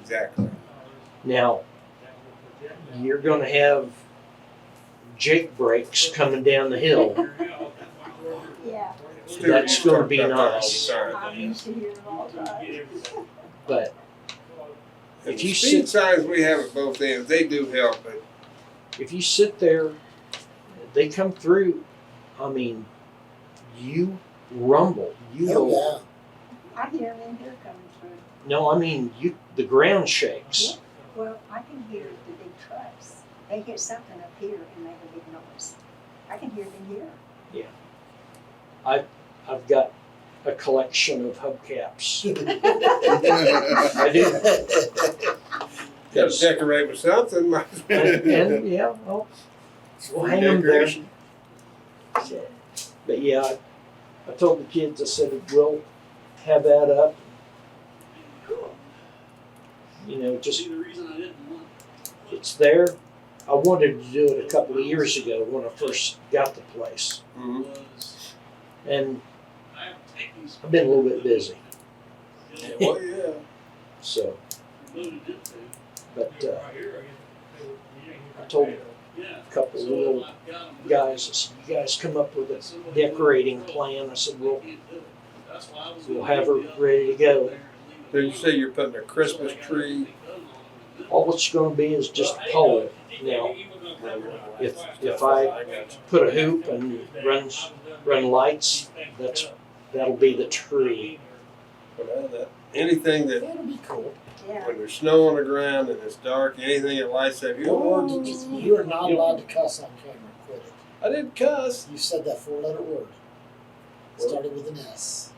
Exactly. Now, you're going to have Jake breaks coming down the hill. Yeah. Stu, That's you gonna talk be about that all the nice. time. I'm used to hearing it all the time. But And If the you speed sit- signs we have at both ends, they do help, but if you sit there, they come through. I mean, you rumble. You Oh, will- yeah. I hear them in here coming through. no. I mean, you. The ground shakes. Well, I can hear the big trucks. They hit something up here and make a big noise. I can hear them here. I've got a collection of hubcaps. I do. gotta decorate with something. might as well. And, and, yeah, well, Well, hang 'em there. Decoration. So, but yeah, I, I told the kids, I said, we'll have that up. You know, just, See, the reason I didn't want it's there. I wanted to do it a couple of years ago when I first got the place. Mhm. was And I have to take these. I've been a little bit busy, Yeah, well, Well, yeah. so, loaded into. but uh, Right here, I told yeah. a couple of So little I've got 'em. guys, I said, you guys come up with a Somebody- decorating plan. I said, Can't well, do it. That's why I was we'll gonna have leave her the other ready to go. there and leave it So you alone. say you're putting a Christmas So I got tree, everything done along with it. All it's gonna be is just Well, hey, pole. you Now, think you were gonna cover it? if- if I put a hoop and runs- Run lights, that's, that'll be the tree. well, that- anything that, That'll be cool. Yeah. when there's snow on the ground and it's dark, anything that lights up, "Oh, Your words, it's- you are not allowed to cuss on camera. Quit it. I didn't cuss. You said that four-letter word. Started with an S.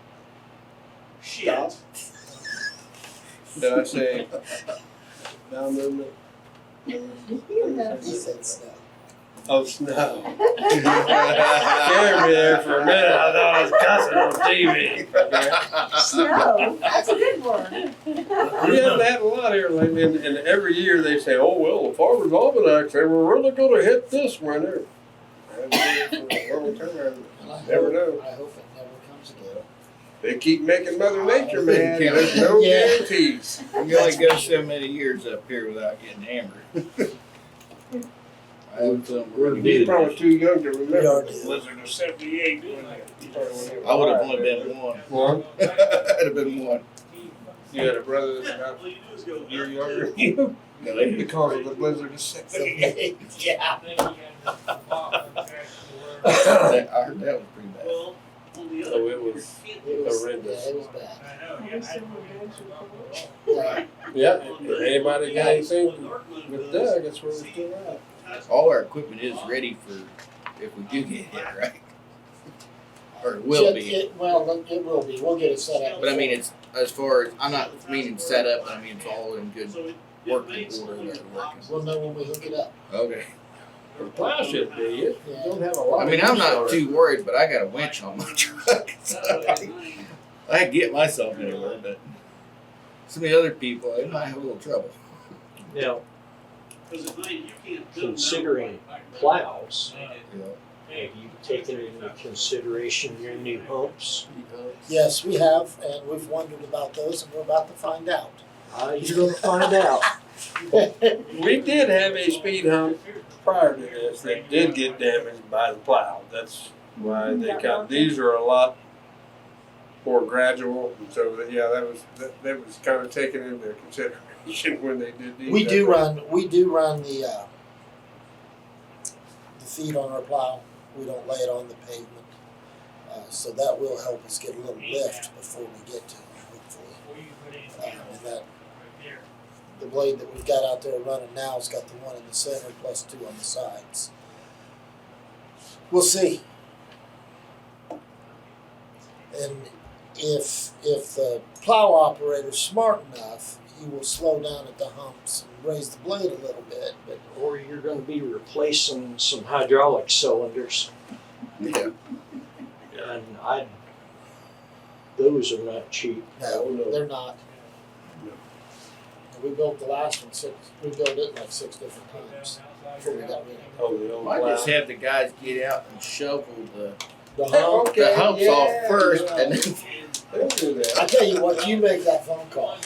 Shit. Did I say down movement? You know. You said snow. Oh, snow. Scared me there for a minute. I thought I was cussing on TV. Snow, that's a good word. We haven't had a lot here lately, and, and every year they say, oh, well, the Farmer's Almanac, they were really gonna hit this winter. I haven't seen it for a long time. And I Never hope- know. I hope it never comes again. They keep making Mother Nature mad. There's no Yeah. guarantees. You only go so many years up here without getting hammered. I have some really He's good- probably too young to We are remember. dead. Blizzard Or seventy-eight. when they- when they I would have were only been one. One? I'd have been one. You had a brother that's about All you do is go. a year younger than you. No, they- Because of the Blizzard of six. Yeah. that- I heard that was pretty bad. Well, on the So other. it was- It was, yeah, Horrendous. it was bad. Yeah. Yeah, if anybody got anything with Doug, that's where we're still at. All our equipment is ready for if we do get hit, right? Or it will Just- be. it- Well, look, it will be. We'll get it set up. But I mean, it's as far as I'm not meaning set up, but I mean it's all in good. So it- it Working makes order all that your we're boxes. We'll know when we hook it up. Okay. The plow should be, it You don't have a lot. I mean, I'm not too worried, but I got a winch on my Oh, truck. So I, I can get myself anywhere, but some of the other people, they might have a little trouble. Now, Because at night, you can't do it. considering plows, You know? have you taken into consideration your new humps? Yes, we have, and we've wondered about those, and we're about to find out. Uh, you're gonna find out. We did have a speed hump prior to this that did get damaged by the plow. That's why they kind, these are a lot more gradual. And so, that- yeah, that was, that, that was kind of taken into consideration when they did these. We do run, we do run the, uh, the feed on our plow. We don't lay it on the pavement. Uh, so that will help us get a little lift before we get to it, hopefully. Um, and that, the blade that we've got out there running now's got the one in the center plus two on the sides. We'll see. And if if the plow operator's smart enough, he will slow down at the humps and raise the blade a little bit. But Or you're gonna be replacing some hydraulic cylinders, Yeah. and I, those are not cheap. no, Oh, no. they're not. No. We built the last one six. We built it like six different times before we got rid of it. Oh, the old Well, I just plow. have the guys get out and shovel the, The hump. Okay, the humps off yeah, first, yeah. and then They'll do that. I tell you what, you make that phone call.